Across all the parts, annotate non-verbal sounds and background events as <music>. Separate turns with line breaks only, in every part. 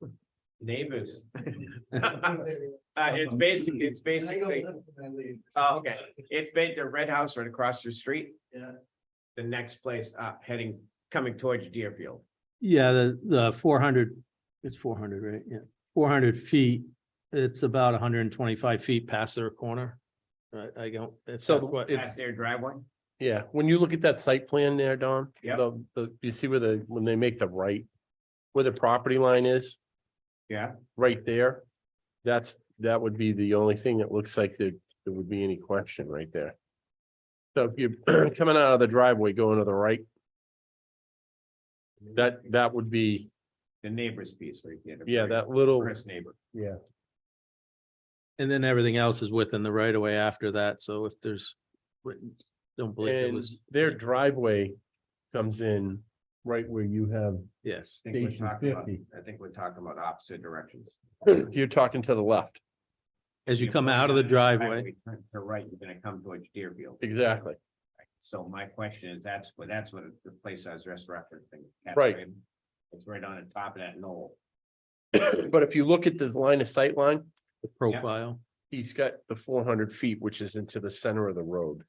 <laughs>
neighbors. Uh, it's basically, it's basically, oh, okay, it's ba- the red house right across your street.
Yeah.
The next place up, heading, coming towards Deerfield.
Yeah, the, the four hundred, it's four hundred, right? Yeah, four hundred feet. It's about hundred and twenty-five feet past their corner. Right, I don't, it's,
So
Past their driveway.
Yeah, when you look at that site plan there, Don.
Yep.
the- The, you see where the, when they make the right, where the property line is?
Yeah.
Right there. That's, that would be the only thing that looks like there, there would be any question right there. So if you're <clears throat> coming out of the driveway, going to the right, that, that would be,
The neighbor's piece right there. the
yeah,
very
that little,
First neighbor.
yeah.
and then everything else is within the right of way after that. So if there's, don't believe it
And
was,
their driveway comes in right where you have, <clears throat>
yes.
I think we're
Station
talking about-
50.
I think we're talking about opposite directions.
you're talking to the left.
<clears throat> As you
If
come
we're
out of the
gonna-
driveway,
if we turn To right, you're gonna come towards Deerfield.
Exactly. <clears throat>
So my question is, that's what, that's what the place I was just referencing.
Right.
It's right on the top of that knoll.
But if you look at this line of sight line,
the profile,
he's got the four hundred feet, which is into the center of the road.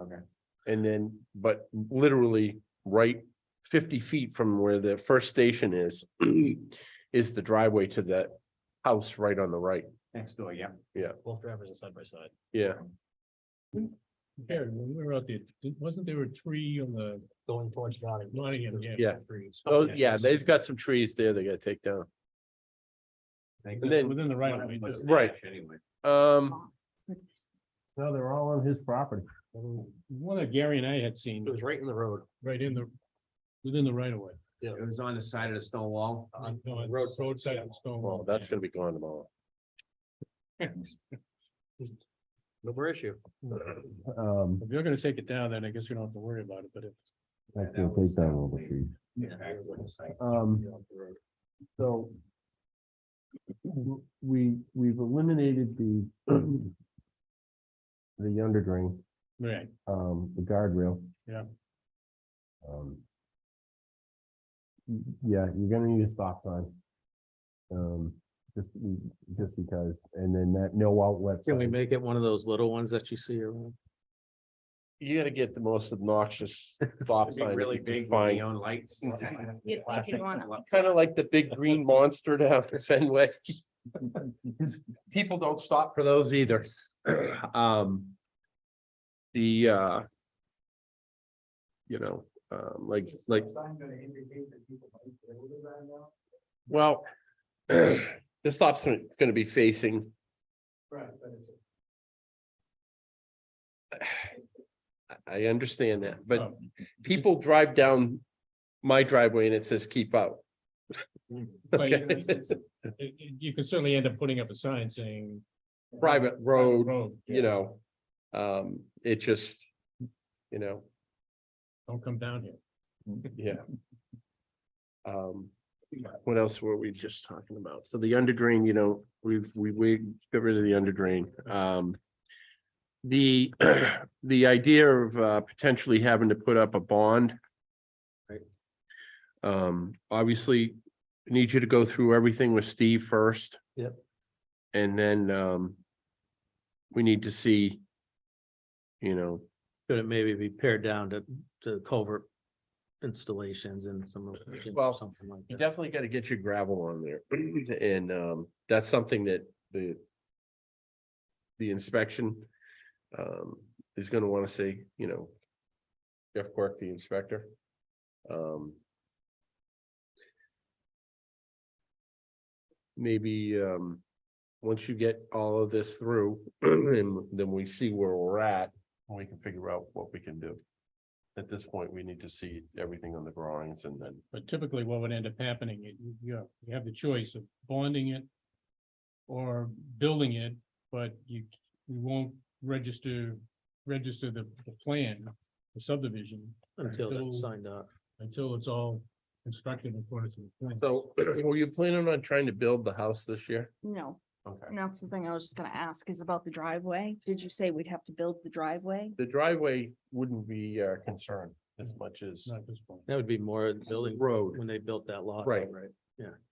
Okay.
And then, but literally right fifty feet from where the first station is, <clears throat> is the driveway to that house right on the right.
Next door, yeah.
Both drivers are side by side.
Yeah,
Karen, when we were out there, didn't- wasn't there a tree on the? Going towards Nottingham. Nottingham, yeah.
Yeah.
Trees.
oh, yeah, they've got some trees there they gotta take down. And then-
Within the right of way.
Was
just-
Right.
Nash Anyway.
Um. No, they're all on his property.
One that Gary and I had seen. It was right in the road. Right in the, within the right of way.
It was on the side of the stone wall.
No, it- Roadside of stone.
Well, that's gonna be gone tomorrow.
no more issue. If
Um.
you're gonna take it down, then I guess you don't have to worry about it, but if.
I
Yeah, that was probably-
Yeah.
Back to the site.
Um. So. w- We, we've eliminated the. <clears throat> The under drain,
Right,
um, the guardrail.
Yeah.
Um. y- Yeah, you're gonna need a stop sign. Um, just, be- just because, and then that no outlet.
can we
sign.
make it one of those little ones that you see around?
You gotta get the most <laughs> obnoxious stop
It'd be
sign.
really big, with neon
<laughs>
lights.
You'd think you'd wanna-
Kind of like the big <laughs> green monster down at Fenway. 'Cause People don't stop for those either. <clears throat> Um. The, uh. You know, um, like, like, well. The stop's gonna be facing, I- I understand that, but
Oh.
people drive down. My driveway and it says keep out.
<laughs>
<laughs>
Well, you-
Okay.
you- You can certainly end up putting up a sign saying.
Private road.
Road,
you know, um, it just, you know,
Don't come down here.
yeah. Um, what else were we just talking about? So the under drain, you know, we've, we, we got rid of the under drain. Um. The, <clears throat> the idea of uh, potentially having to put up a bond.
Right.
Um, obviously, I need you to go through everything with Steve first.
Yep.
And then, um. We need to see. You know,
Could it maybe be pared down to, to culvert installations and some of,
Well,
something like
You
that?
definitely gotta get your gravel on there, <clears throat> and um, that's something that the. The inspection um is gonna wanna say, you know. Jeff Quirk, the inspector. Um. Maybe um, once you get all of this through, <clears throat> and then we see where we're at, we can figure out what we can do. At this point, we need to see everything on the drawings and then.
But typically what would end up happening, you, you- you have, you have the choice of bonding it or building it, but you, you won't register, register the, the plan, the subdivision
Until that's
until-
signed up.
until it's all constructed according to the plan.
So <clears throat> were you planning on trying to build the house this year?
No,
Okay.
and that's the thing I was just gonna ask is about the driveway. Did you say we'd have to build the driveway?
The driveway wouldn't be uh concerned as much as
Not this point.
That would be more building
road.
when they built that lot.
Right.
Right.